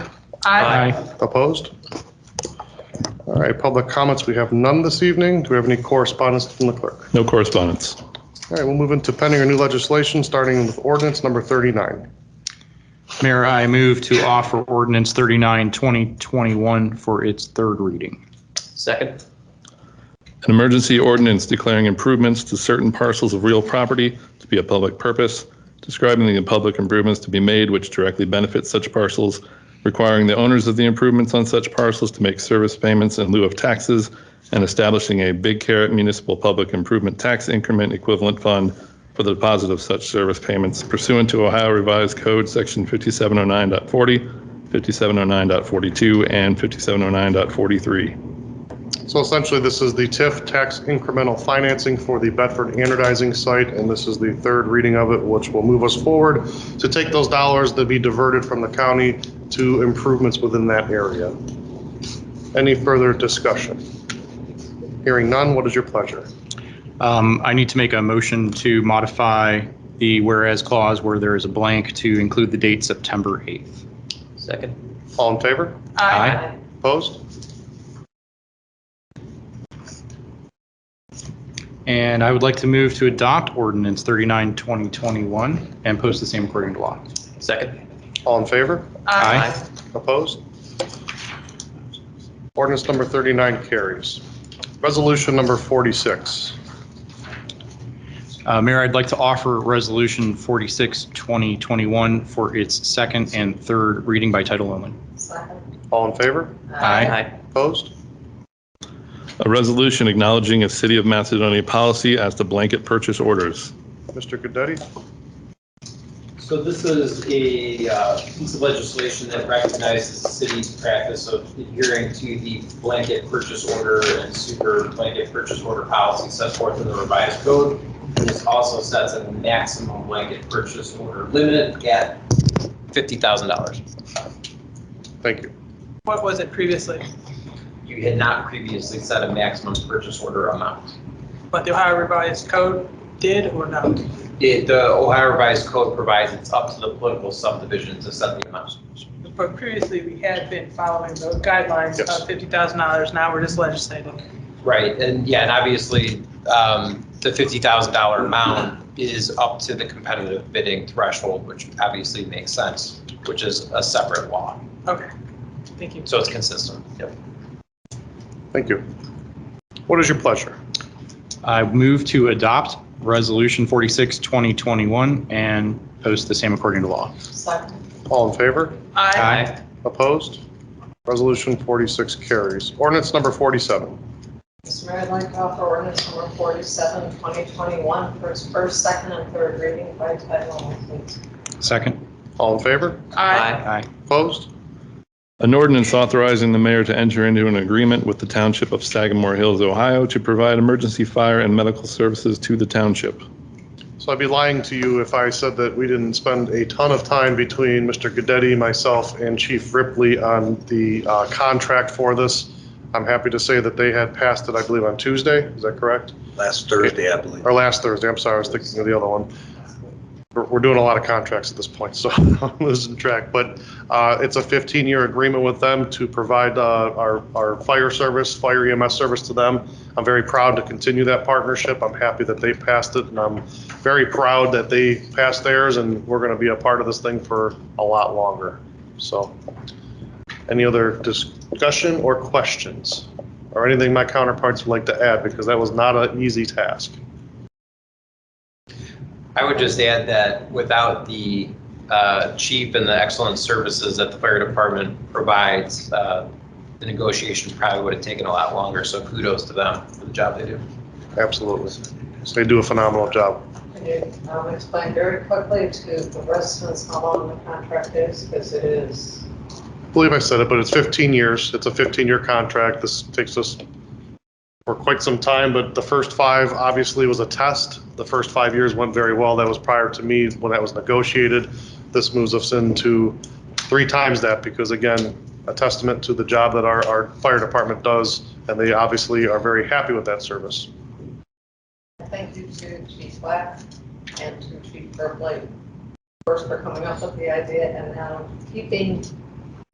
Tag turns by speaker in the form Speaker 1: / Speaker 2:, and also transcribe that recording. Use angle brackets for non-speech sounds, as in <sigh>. Speaker 1: Opposed? All right, public comments, we have none this evening. Do we have any correspondence from the clerk?
Speaker 2: No correspondence.
Speaker 1: All right, we'll move into pending or new legislation, starting with ordinance number 39.
Speaker 3: Mayor, I move to offer ordinance 39, 2021 for its third reading.
Speaker 4: Second.
Speaker 2: An emergency ordinance declaring improvements to certain parcels of real property to be a public purpose, describing the public improvements to be made which directly benefit such parcels, requiring the owners of the improvements on such parcels to make service payments in lieu of taxes, and establishing a Big Carrot Municipal Public Improvement Tax Increment Equivalent Fund for the deposit of such service payments pursuant to Ohio Revised Code, Section 5709.40, 5709.42, and 5709.43.
Speaker 1: So essentially, this is the TIF tax incremental financing for the Bedford anodizing site, and this is the third reading of it, which will move us forward to take those dollars that be diverted from the county to improvements within that area. Any further discussion? Hearing none, what is your pleasure?
Speaker 3: Um, I need to make a motion to modify the whereas clause where there is a blank to include the date September 8th.
Speaker 4: Second.
Speaker 1: All in favor?
Speaker 3: Aye.
Speaker 1: Opposed?
Speaker 3: And I would like to move to adopt ordinance 39, 2021 and post the same according to law.
Speaker 4: Second.
Speaker 1: All in favor?
Speaker 3: Aye.
Speaker 1: Opposed? Ordinance number 39 carries. Resolution number 46.
Speaker 3: Uh, Mayor, I'd like to offer Resolution 46, 2021 for its second and third reading by title only.
Speaker 1: All in favor?
Speaker 4: Aye.
Speaker 1: Opposed?
Speaker 2: A resolution acknowledging a City of Macedonia policy as to blanket purchase orders.
Speaker 1: Mr. Goodetti?
Speaker 5: So this is a uh, piece of legislation that recognizes the city's practice of adhering to the blanket purchase order and super blanket purchase order policy set forth in the revised code. This also sets a maximum blanket purchase order limit at
Speaker 4: Fifty thousand dollars.
Speaker 1: Thank you.
Speaker 6: What was it previously?
Speaker 5: you had not previously set a maximum purchase order amount.
Speaker 6: But the Ohio Revised Code did or no?
Speaker 5: It- The Ohio Revised Code provides it's up to the political subdivision to set the amount.
Speaker 6: But previously, we had been following those guidelines
Speaker 1: Yes.
Speaker 6: of fifty thousand dollars, now we're just legislating.
Speaker 5: Right, and yeah, and obviously, um, the fifty thousand dollar amount is up to the competitive bidding threshold, which obviously makes sense, which is a separate law,
Speaker 6: Okay, thank you.
Speaker 5: so it's consistent. Yep.
Speaker 1: Thank you. What is your pleasure?
Speaker 3: I move to adopt Resolution 46, 2021 and post the same according to law.
Speaker 1: All in favor?
Speaker 6: Aye.
Speaker 1: Opposed? Resolution 46 carries. Ordinance number 47.
Speaker 7: Mr. Mayor, I'd like to offer ordinance number 47, 2021, for its first, second, and third reading by title only, please.
Speaker 3: Second.
Speaker 1: All in favor?
Speaker 6: Aye.
Speaker 3: Aye.
Speaker 1: Opposed?
Speaker 2: An ordinance authorizing the mayor to enter into an agreement with the Township of Sagamore Hills, Ohio to provide emergency fire and medical services to the township.
Speaker 1: So I'd be lying to you if I said that we didn't spend a ton of time between Mr. Goodetti, myself, and Chief Ripley on the uh, contract for this. I'm happy to say that they had passed it, I believe, on Tuesday. Is that correct?
Speaker 8: Last Thursday, I believe.
Speaker 1: Or last Thursday, I'm sorry, I was thinking of the other one. We're- We're doing a lot of contracts at this point, so <laughs> I'm losing track. But uh, it's a 15-year agreement with them to provide uh, our our fire service, fire EMS service to them. I'm very proud to continue that partnership. I'm happy that they passed it, and I'm very proud that they passed theirs, and we're going to be a part of this thing for a lot longer. So any other discussion or questions? Or anything my counterparts would like to add, because that was not an easy task.
Speaker 5: I would just add that without the uh, chief and the excellent services that the fire department provides, uh, the negotiation probably would have taken a lot longer, so kudos to them for the job they do.
Speaker 1: Absolutely. They do a phenomenal job.
Speaker 7: Can you um, explain very quickly to the residents how long the contract is? Because it is,
Speaker 1: I believe I said it, but it's 15 years. It's a 15-year contract. This takes us for quite some time, but the first five obviously was a test. The first five years went very well. That was prior to me when that was negotiated. This moves us into three times that because again, a testament to the job that our, our fire department does, and they obviously are very happy with that service.
Speaker 7: thank you to Chief Black and to Chief Berkeley, first for coming up with the idea and now keeping